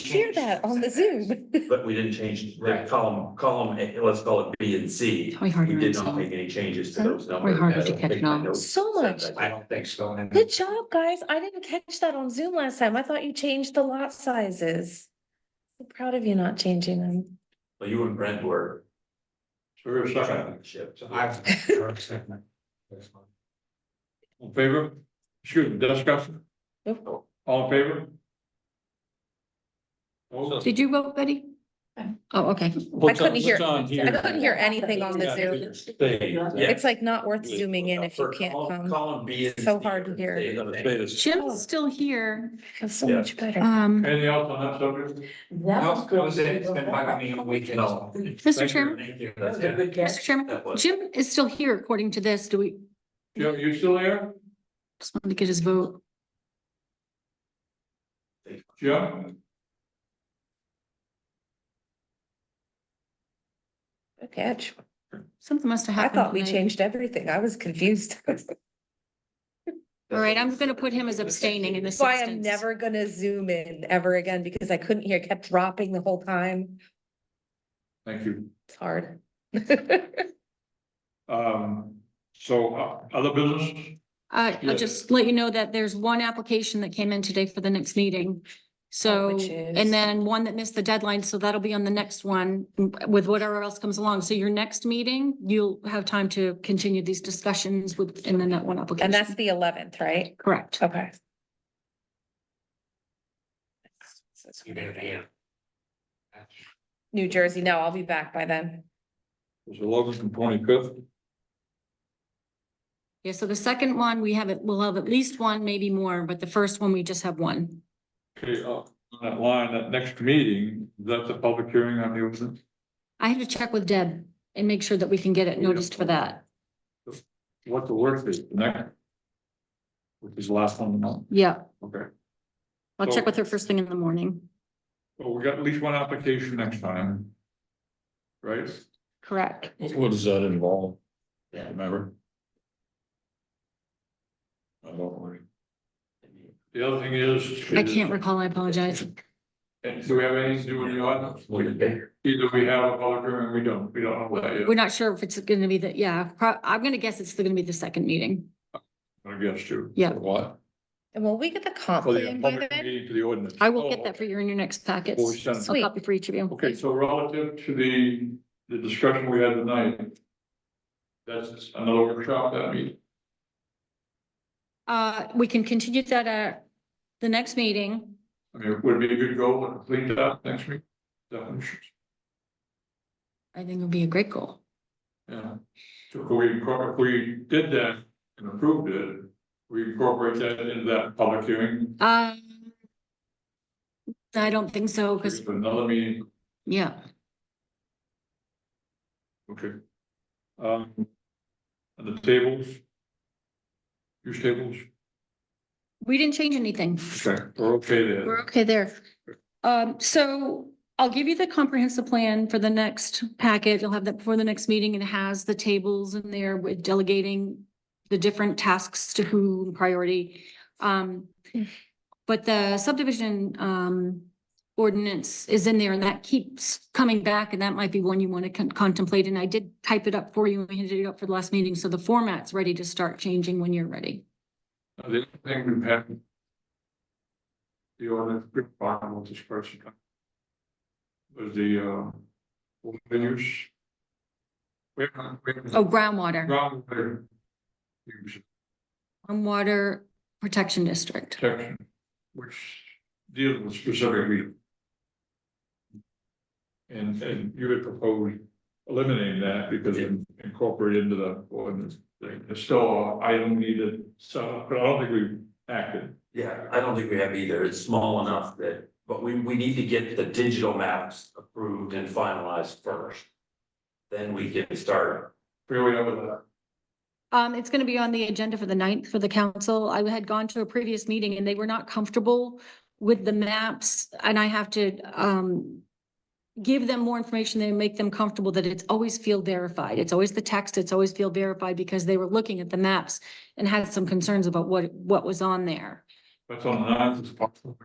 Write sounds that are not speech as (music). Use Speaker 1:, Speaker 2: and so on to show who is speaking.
Speaker 1: hear
Speaker 2: change
Speaker 1: that on (laughs) the
Speaker 2: setbacks.
Speaker 1: Zoom.
Speaker 3: But we didn't change, the
Speaker 2: Right.
Speaker 3: column, column, A- let's call it B and C.
Speaker 4: Tell me harder.
Speaker 3: We did
Speaker 4: it's
Speaker 3: not
Speaker 4: all-
Speaker 3: make any changes to those numbers.
Speaker 4: Way harder
Speaker 3: I
Speaker 4: to
Speaker 3: don't
Speaker 4: catch
Speaker 3: think my
Speaker 4: now.
Speaker 3: notes
Speaker 1: So
Speaker 3: said
Speaker 1: much.
Speaker 3: that.
Speaker 2: I don't think so. and-
Speaker 1: Good job, guys. I didn't catch that on Zoom last time. I thought you changed the lot sizes. I'm proud of you not changing them.
Speaker 3: Well, you and Brent were.
Speaker 5: So we're second.
Speaker 3: Ship.
Speaker 5: So I- All in favor? Excuse me, discussion?
Speaker 1: Nope.
Speaker 5: All in favor? Oh,
Speaker 4: Did you vote, Betty? Oh, okay.
Speaker 1: I couldn't hear- I couldn't hear anything on the Zoom.
Speaker 3: Yeah.
Speaker 5: Zoom.
Speaker 1: It's like not worth zooming in if you
Speaker 3: For
Speaker 1: can't
Speaker 3: column-
Speaker 1: come.
Speaker 3: Column B and C.
Speaker 1: So hard to hear.
Speaker 3: Say the same.
Speaker 1: Oh.
Speaker 4: Jim's still here.
Speaker 1: Feels so
Speaker 3: Yeah.
Speaker 1: much better.
Speaker 4: Um,
Speaker 5: Anything else on that subject?
Speaker 2: No, that was it. It's been bugging me all weekend.
Speaker 3: No.
Speaker 4: Mr. Chairman,
Speaker 5: Thank you.
Speaker 3: That's good.
Speaker 4: Mr. Chairman,
Speaker 3: That was-
Speaker 4: Jim is still here according to this. Do we,
Speaker 5: Jim, you still there?
Speaker 4: just wanted to get his vote.
Speaker 5: Jim?
Speaker 1: Good catch.
Speaker 4: Something must have
Speaker 1: I
Speaker 4: happened.
Speaker 1: thought we
Speaker 4: tonight.
Speaker 1: changed everything. I was confused. (laughs)
Speaker 4: All right, I'm gonna put him as abstaining in this
Speaker 1: That's Why I'm
Speaker 4: instance.
Speaker 1: never gonna zoom in ever again because I couldn't hear, it kept dropping the whole time.
Speaker 5: Thank you.
Speaker 1: It's hard. (laughs)
Speaker 5: Um, so uh, other business?
Speaker 4: Uh,
Speaker 5: Yeah.
Speaker 4: I'll just let you know that there's one application that came in today for the next meeting. So,
Speaker 1: Oh, which is?
Speaker 4: and then one that missed the deadline, so that'll be on the next one with whatever else comes along. So your next meeting, you'll have time to continue these discussions with, and then that one application.
Speaker 1: And that's the eleventh, right?
Speaker 4: Correct.
Speaker 1: Okay.
Speaker 2: You better be here.
Speaker 1: New Jersey, no, I'll be back by then.
Speaker 5: Is it August and twenty-fifth?
Speaker 4: Yeah, so the second one, we have it, we'll have at least one, maybe more, but the first one, we just have one.
Speaker 5: Okay, uh, on that line, that next meeting, that's a public hearing on the ordinance?
Speaker 4: I have to check with Deb and make sure that we can get it noticed for that.
Speaker 5: What the work is, the next? Which is the last one of the month,
Speaker 4: Yeah,
Speaker 5: okay.
Speaker 4: I'll check with her first thing in the morning.
Speaker 5: Well, we got at least one application next time. Right?
Speaker 4: Correct.
Speaker 6: What does that involve? Remember? I don't worry.
Speaker 5: The other thing is.
Speaker 4: I can't recall, I apologize.
Speaker 5: And do we have anything to do with the ordinance?
Speaker 3: Would it be?
Speaker 5: Either we have a public hearing, or we don't, we don't know that yet,
Speaker 4: We're not sure if it's gonna be the, yeah, pro- I'm gonna guess it's gonna be the second meeting.
Speaker 5: I guess too.
Speaker 4: Yeah.
Speaker 6: What?
Speaker 1: And will we get the comp
Speaker 5: For the
Speaker 1: plan by
Speaker 5: public
Speaker 1: then?
Speaker 5: meeting to the ordinance. Oh,
Speaker 4: I will get that for you in your next packets.
Speaker 5: Before we send it.
Speaker 4: A copy for each of you.
Speaker 5: Oh, Okay, so relative to the, the discussion we had tonight. That's another workshop that meeting.
Speaker 4: Uh, we can continue that at the next meeting.
Speaker 5: I mean, would it be a good goal to complete that next week? Definitions,
Speaker 4: I think it'll be a great goal.
Speaker 5: yeah. So if we, incorpor- if we did that and approved it, we incorporate that into that public hearing.
Speaker 4: Um, I don't think so, because,
Speaker 5: It's Another meeting,
Speaker 4: yeah,
Speaker 5: okay. Um, and the tables. Use tables,
Speaker 4: we didn't change anything.
Speaker 5: okay, we're okay there.
Speaker 4: We're okay there. Um, so I'll give you the comprehensive plan for the next packet. You'll have that before the next meeting and it has the tables in there with delegating the different tasks to who and priority. Um, but the subdivision, um, ordinance is in there and that keeps coming back and that might be one you want to contemplate. And I did type it up for you and handed it up for the last meeting. So the format's ready to start changing when you're ready.
Speaker 5: The only thing we have. The ordinance, big problem with this person. Was the, uh, open use. We have, we have.
Speaker 4: Oh, groundwater,
Speaker 5: Groundwater. Use
Speaker 4: groundwater protection district.
Speaker 5: protection, which deals with specific reading. And, and you had proposed eliminating that because it incorporated into the ordinance thing. It's still, an item needed, so, but I don't think we acted.
Speaker 3: Yeah, I don't think we have either. It's small enough that, but we, we need to get the digital maps approved and finalized first. Then we can start.
Speaker 5: Where we are with that.
Speaker 4: Um, it's gonna be on the agenda for the ninth for the council. I had gone to a previous meeting and they were not comfortable with the maps and I have to, um, give them more information and make them comfortable that it's always field verified. It's always the text, it's always field verified because they were looking at the maps and had some concerns about what, what was on there.
Speaker 5: That's on the ninth, it's possible.